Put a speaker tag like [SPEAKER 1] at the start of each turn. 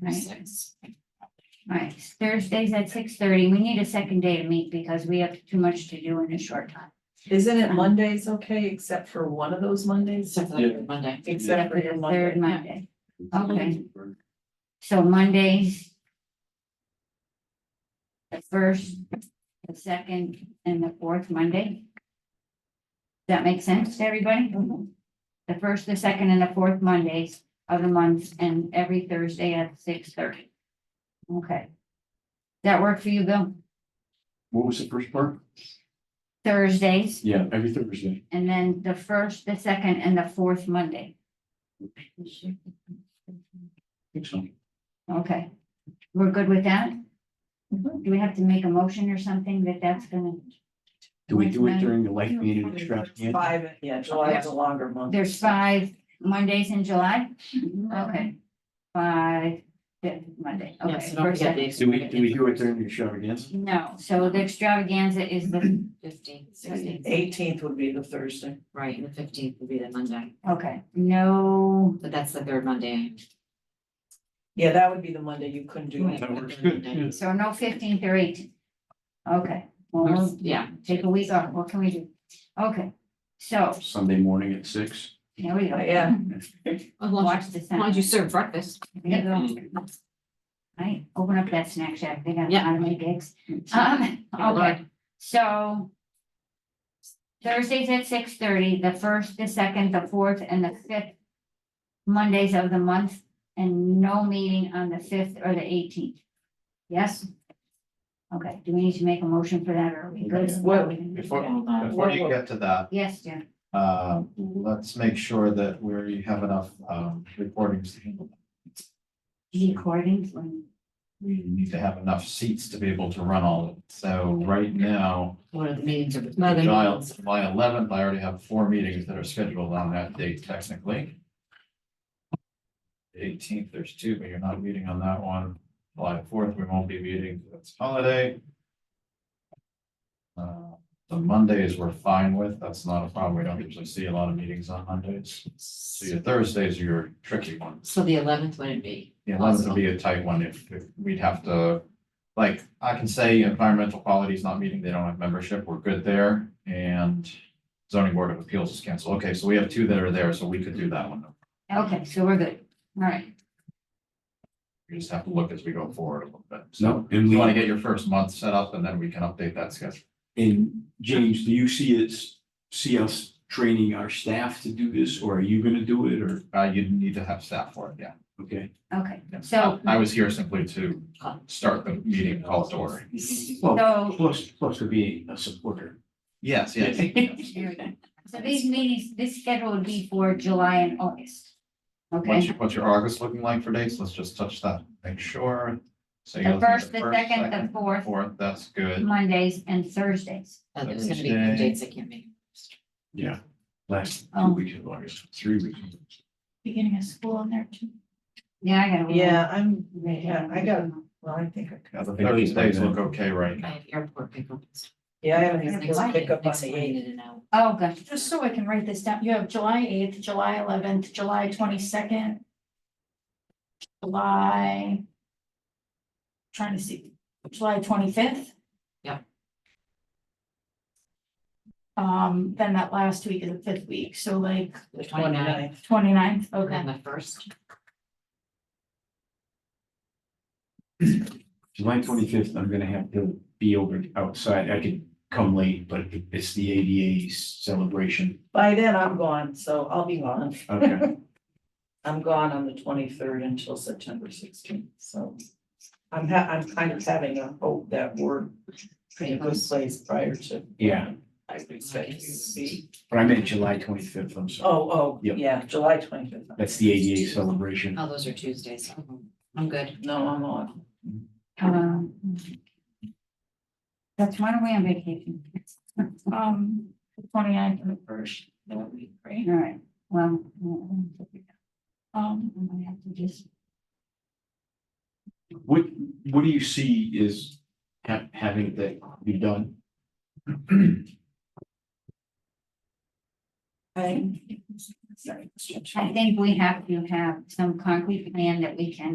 [SPEAKER 1] Right, right. Thursdays at six thirty. We need a second day to meet because we have too much to do in a short time.
[SPEAKER 2] Isn't it
[SPEAKER 1] Um,
[SPEAKER 2] Mondays okay, except for one of those Mondays?
[SPEAKER 3] Except for like Monday.
[SPEAKER 2] Except for your
[SPEAKER 1] The Third
[SPEAKER 2] Monday.
[SPEAKER 1] Monday. Okay. So Mondays. The first, the second and the fourth Monday. Does that make sense to everybody?
[SPEAKER 2] Mhm.
[SPEAKER 1] The first, the second and the fourth Mondays of the month and every Thursday at six thirty. Okay. That work for you, Bill?
[SPEAKER 3] What was the first part?
[SPEAKER 1] Thursdays?
[SPEAKER 3] Yeah, every Thursday.
[SPEAKER 1] And then the first, the second, and the fourth Monday,
[SPEAKER 3] I think so.
[SPEAKER 1] okay? We're good with that?
[SPEAKER 2] Mhm.
[SPEAKER 1] Do we have to make a motion or something that that's gonna,
[SPEAKER 3] Do we do it during the life meeting extravaganza?
[SPEAKER 2] Five, yeah, July is a longer month.
[SPEAKER 1] there's five Mondays in July? Okay. Five, fifth Monday,
[SPEAKER 3] Yeah,
[SPEAKER 1] okay.
[SPEAKER 3] so
[SPEAKER 1] first, second.
[SPEAKER 3] Do we, do we do it during the extravaganza?
[SPEAKER 1] No, so the extravaganza is the,
[SPEAKER 4] Fifteenth, sixteenth,
[SPEAKER 2] Eighteenth would be the Thursday.
[SPEAKER 4] right, and the fifteenth will be the Monday,
[SPEAKER 1] okay, no,
[SPEAKER 4] but that's the third Monday.
[SPEAKER 2] Yeah, that would be the Monday you couldn't do.
[SPEAKER 4] Right.
[SPEAKER 2] it.
[SPEAKER 3] That works good, yeah.
[SPEAKER 1] so no fifteenth or eighteenth. Okay, well,
[SPEAKER 4] Or,
[SPEAKER 1] we'll
[SPEAKER 4] yeah,
[SPEAKER 1] take a week off, what can we do? Okay, so,
[SPEAKER 3] Sunday morning at six.
[SPEAKER 1] here we go.
[SPEAKER 2] Yeah.
[SPEAKER 4] as long as,
[SPEAKER 1] Watch the
[SPEAKER 4] as long as you
[SPEAKER 1] sound.
[SPEAKER 4] serve breakfast.
[SPEAKER 1] Here you go. Right, open up that snack shack, they got a lot of my gigs.
[SPEAKER 4] Uh-huh.
[SPEAKER 1] Um,
[SPEAKER 4] Yeah,
[SPEAKER 1] okay,
[SPEAKER 4] Lord.
[SPEAKER 1] so. Thursdays at six thirty, the first, the second, the fourth, and the fifth. Mondays of the month, and no meeting on the fifth or the eighteenth. Yes? Okay, do we need to make a motion for that, or are we good?
[SPEAKER 2] Well,
[SPEAKER 5] Before,
[SPEAKER 2] Yeah.
[SPEAKER 5] before you get to that,
[SPEAKER 1] Yes, Jim,
[SPEAKER 5] uh, let's make sure that we're, you have enough, um, recordings to handle. that.
[SPEAKER 1] recordings,
[SPEAKER 5] We need to have enough seats to be able to run all of it. So right now,
[SPEAKER 4] One of the meetings of.
[SPEAKER 5] July July eleventh, I already have four meetings that are scheduled on that date technically. Eighteenth, there's two, but you're not meeting on that one. July fourth, we won't be meeting, 'cause it's holiday. Uh, The Mondays we're fine with, that's not a problem. We don't usually see a lot of meetings on Mondays. So your Thursdays are your tricky ones.
[SPEAKER 4] So the eleventh wouldn't be.
[SPEAKER 5] The eleventh would be a tight one if, if we'd have to, like, I can say environmental quality is not meeting, they don't have membership, we're good there. And zoning board of appeals is canceled. Okay, so we have two that are there, so we could do that one.
[SPEAKER 1] okay, so we're good, all right,
[SPEAKER 5] We just have to look as we go forward a little bit. So
[SPEAKER 3] No, and
[SPEAKER 5] you want
[SPEAKER 3] we,
[SPEAKER 5] to get your first month set up and then we can update that schedule.
[SPEAKER 3] and James, do you see it's, see us training our staff to do this, or are you gonna do it, or,
[SPEAKER 5] Uh, you need to have staff for it, yeah.
[SPEAKER 3] okay?
[SPEAKER 1] okay,
[SPEAKER 5] Yeah.
[SPEAKER 1] So-
[SPEAKER 5] I I was here simply to start the meeting call to order.
[SPEAKER 3] Well,
[SPEAKER 1] so.
[SPEAKER 3] plus, plus to be a supporter.
[SPEAKER 5] Yes, yes.
[SPEAKER 1] There we go. So these meetings, this schedule would be for July and August.
[SPEAKER 5] What's
[SPEAKER 1] Okay,
[SPEAKER 5] your, what's your August looking like for dates? Let's just touch that, make sure. So you're
[SPEAKER 1] the
[SPEAKER 5] looking at
[SPEAKER 1] first, the second, the fourth,
[SPEAKER 5] Fourth, that's good.
[SPEAKER 1] Mondays and Thursdays.
[SPEAKER 4] Uh, There's gonna be
[SPEAKER 5] Thursday.
[SPEAKER 4] dates I can't make.
[SPEAKER 3] Yeah, last two
[SPEAKER 1] Um,
[SPEAKER 3] weeks of August, three weeks. of August.
[SPEAKER 1] Beginning of school in there too. Yeah, I got.
[SPEAKER 2] Yeah, I'm, yeah, I got, well, I think I
[SPEAKER 5] Yeah,
[SPEAKER 2] could.
[SPEAKER 5] the Thursdays look okay right
[SPEAKER 4] I
[SPEAKER 5] now.
[SPEAKER 4] have airport pickup. It's
[SPEAKER 2] Yeah, I haven't
[SPEAKER 4] next
[SPEAKER 2] even
[SPEAKER 1] July,
[SPEAKER 2] picked up on
[SPEAKER 4] next
[SPEAKER 2] the
[SPEAKER 4] Monday
[SPEAKER 2] eighth.
[SPEAKER 4] in and out.
[SPEAKER 1] Oh, gosh.
[SPEAKER 6] Just so I can write this down, you have July eighth, July eleventh, July twenty-second. July. Trying to see, July twenty-fifth?
[SPEAKER 4] Yeah.
[SPEAKER 6] Um, then that last week is the fifth week, so like
[SPEAKER 4] The 29th.
[SPEAKER 6] 29th.
[SPEAKER 4] and
[SPEAKER 6] okay,
[SPEAKER 4] the first.
[SPEAKER 3] July twenty-fifth, I'm gonna have to be over outside, I could come late, but it's the ADA celebration.
[SPEAKER 2] By then I'm gone, so I'll be gone.
[SPEAKER 3] Okay.
[SPEAKER 2] I'm gone on the twenty-third until September sixteenth, so. I'm ha- I'm kind of having a hope that we're pretty good place prior to.
[SPEAKER 3] Yeah,
[SPEAKER 2] I would expect you to be.
[SPEAKER 3] but I meant July twenty-fifth, I'm sorry,
[SPEAKER 2] Oh, oh,
[SPEAKER 3] Yep.
[SPEAKER 2] yeah, July twenty-fifth.
[SPEAKER 3] that's the ADA celebration.
[SPEAKER 4] Oh, those are Tuesdays. Mhm. I'm good.
[SPEAKER 2] No, I'm on.
[SPEAKER 1] Um, That's why we're on vacation.
[SPEAKER 6] um, 29th and the first, that would be great,
[SPEAKER 1] All right, well. I'm
[SPEAKER 6] um,
[SPEAKER 1] gonna have to just-
[SPEAKER 3] What, what do you see is ha- having that be done?
[SPEAKER 2] I. Sorry.
[SPEAKER 1] I think we have to have some concrete plan that we can